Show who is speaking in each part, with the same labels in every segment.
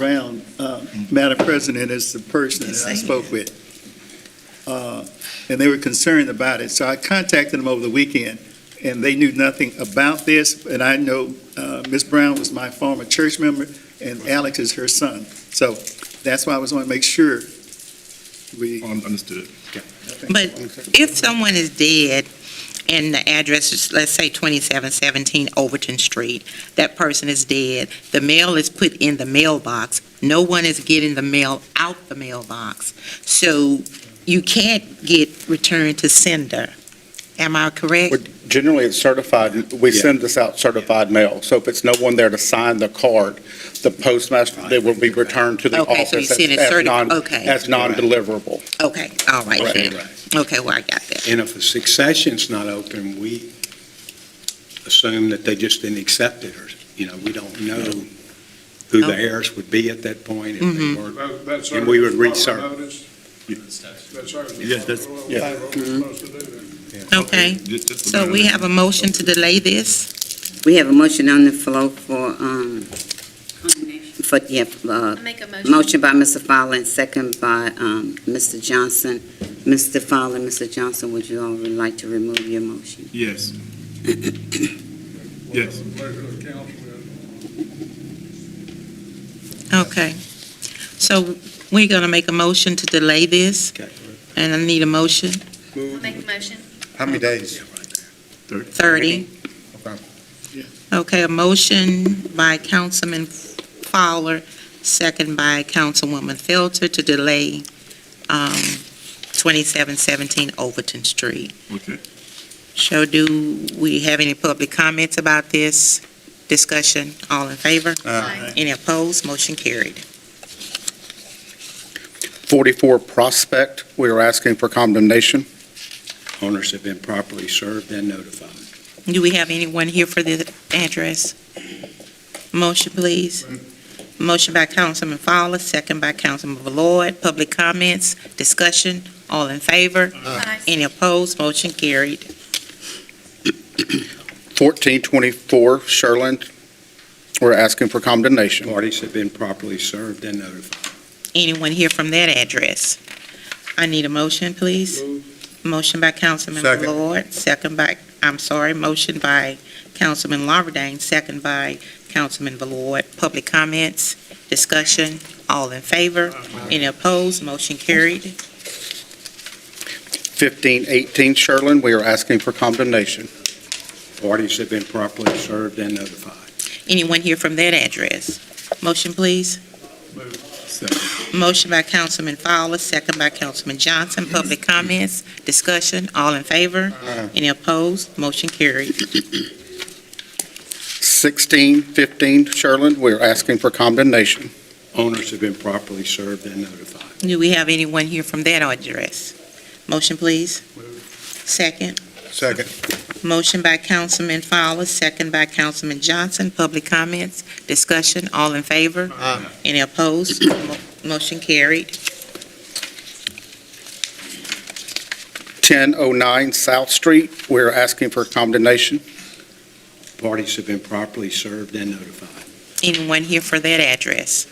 Speaker 1: Brown, uh, Madam President, is the person that I spoke with. Uh, And they were concerned about it, so I contacted them over the weekend, and they knew nothing about this, and I know uh, Ms. Brown was my former church member, and Alex is her son. So that's why I was wanting to make sure we,
Speaker 2: Un- Understood.
Speaker 3: But if someone is dead and the address is, let's say, 2717 Overton Street, that person is dead, the mail is put in the mailbox, no one is getting the mail out the mailbox. So you can't get returned to sender. Am I correct?
Speaker 4: Would- Generally, it's certified, we send this out certified mail, so if it's no one there to sign the card, the postmaster, they will be returned to the
Speaker 3: Okay, so you
Speaker 4: office
Speaker 3: send it
Speaker 4: as- as
Speaker 3: certi-
Speaker 4: non-
Speaker 3: okay.
Speaker 4: as non-deliverable.
Speaker 3: Okay, all right then. Okay, well, I got that.
Speaker 5: And if a succession's not open, we assume that they just didn't accept it, or, you know, we don't know who the heirs would be at that point, if they
Speaker 3: Mhm.
Speaker 5: weren't.
Speaker 6: That- That's our.
Speaker 5: And we would reach
Speaker 6: proper
Speaker 5: our-
Speaker 6: notice. That's our.
Speaker 2: Yes, that's-
Speaker 4: yeah.
Speaker 6: We're supposed to do that.
Speaker 3: Okay,
Speaker 2: Just- just a
Speaker 3: so we
Speaker 2: minute.
Speaker 3: have a motion to delay this?
Speaker 7: We have a motion on the floor for, um, for, yeah, uh,
Speaker 8: I make a motion.
Speaker 7: motion by Mr. Fowler and second by, um, Mr. Johnson. Mr. Fowler, Mr. Johnson, would you all would like to remove your motion?
Speaker 2: Yes. Yes.
Speaker 6: Pleasure of the council.
Speaker 3: Okay. So we're going to make a motion to delay this,
Speaker 5: Okay.
Speaker 3: and I need a motion.
Speaker 8: I make a motion.
Speaker 9: How many days?
Speaker 3: 30.
Speaker 9: Okay.
Speaker 1: Yeah.
Speaker 3: Okay, a motion by Councilman Fowler, second by Councilwoman Felter to delay um, 2717 Overton Street.
Speaker 2: Okay.
Speaker 3: So do we have any public comments about this discussion? All in favor?
Speaker 1: Uh,
Speaker 8: Aye.
Speaker 3: Any opposed? Motion carried.
Speaker 4: 44 Prospect, we are asking for condemnation.
Speaker 5: Owners have been properly served and notified.
Speaker 3: Do we have anyone here for the address? Motion, please. Motion by Councilman Fowler, second by Councilman Ballard. Public comments, discussion, all in favor?
Speaker 8: Aye.
Speaker 3: Any opposed? Motion carried.
Speaker 4: 1424 Sherland, we're asking for condemnation.
Speaker 5: Parties have been properly served and notified.
Speaker 3: Anyone here from that address? I need a motion, please. Motion by Councilman
Speaker 9: Second.
Speaker 3: Ballard, second by, I'm sorry, motion by Councilman Lawberdane, second by Councilman Ballard. Public comments, discussion, all in favor? Any opposed? Motion carried.
Speaker 4: 1518 Sherland, we are asking for condemnation.
Speaker 5: Parties have been properly served and notified.
Speaker 3: Anyone here from that address? Motion, please. Motion by Councilman Fowler, second by Councilman Johnson. Public comments, discussion, all in favor? Any opposed? Motion carried.
Speaker 4: 1615 Sherland, we are asking for condemnation.
Speaker 5: Owners have been properly served and notified.
Speaker 3: Do we have anyone here from that address? Motion, please. Second.
Speaker 9: Second.
Speaker 3: Motion by Councilman Fowler, second by Councilman Johnson. Public comments, discussion, all in favor?
Speaker 9: Aye.
Speaker 3: Any opposed? Mo- Motion carried.
Speaker 4: 1009 South Street, we are asking for condemnation.
Speaker 5: Parties have been properly served and notified.
Speaker 3: Anyone here for that address?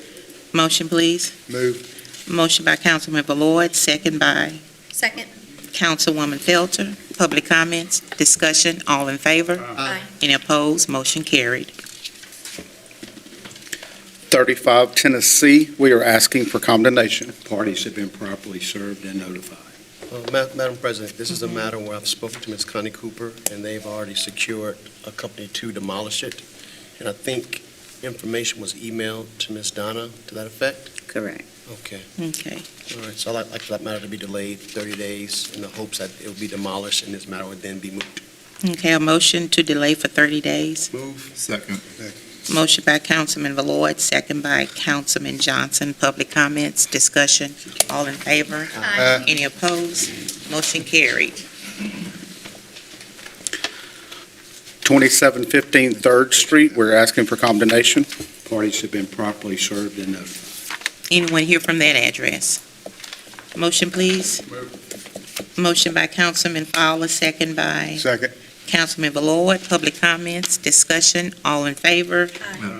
Speaker 3: Motion, please.
Speaker 9: Move.
Speaker 3: Motion by Councilman Ballard, second by
Speaker 8: Second.
Speaker 3: Councilwoman Felter. Public comments, discussion, all in favor?
Speaker 8: Aye.
Speaker 3: Any opposed? Motion carried.
Speaker 4: 35 Tennessee, we are asking for condemnation.
Speaker 5: Parties have been properly served and notified.
Speaker 9: Uh, Ma- Madam President, this is a matter where I've spoken to Ms. Connie Cooper, and they've already secured a company to demolish it. And I think information was emailed to Ms. Donna to that effect?
Speaker 7: Correct.
Speaker 9: Okay.
Speaker 3: Okay.
Speaker 9: All right, so I'd like for that matter to be delayed 30 days in the hopes that it will be demolished and this matter would then be moved.
Speaker 3: Okay, a motion to delay for 30 days.
Speaker 9: Move.
Speaker 2: Second.
Speaker 3: Motion by Councilman Ballard, second by Councilman Johnson. Public comments, discussion, all in favor?
Speaker 8: Aye.
Speaker 3: Any opposed? Motion carried.
Speaker 4: 2715 Third Street, we're asking for condemnation.
Speaker 5: Parties have been properly served and notified.
Speaker 3: Anyone here from that address? Motion, please. Motion by Councilman Fowler, second by
Speaker 9: Second.
Speaker 3: Councilman Ballard. Public comments, discussion, all in favor?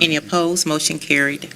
Speaker 3: Any opposed? Motion carried.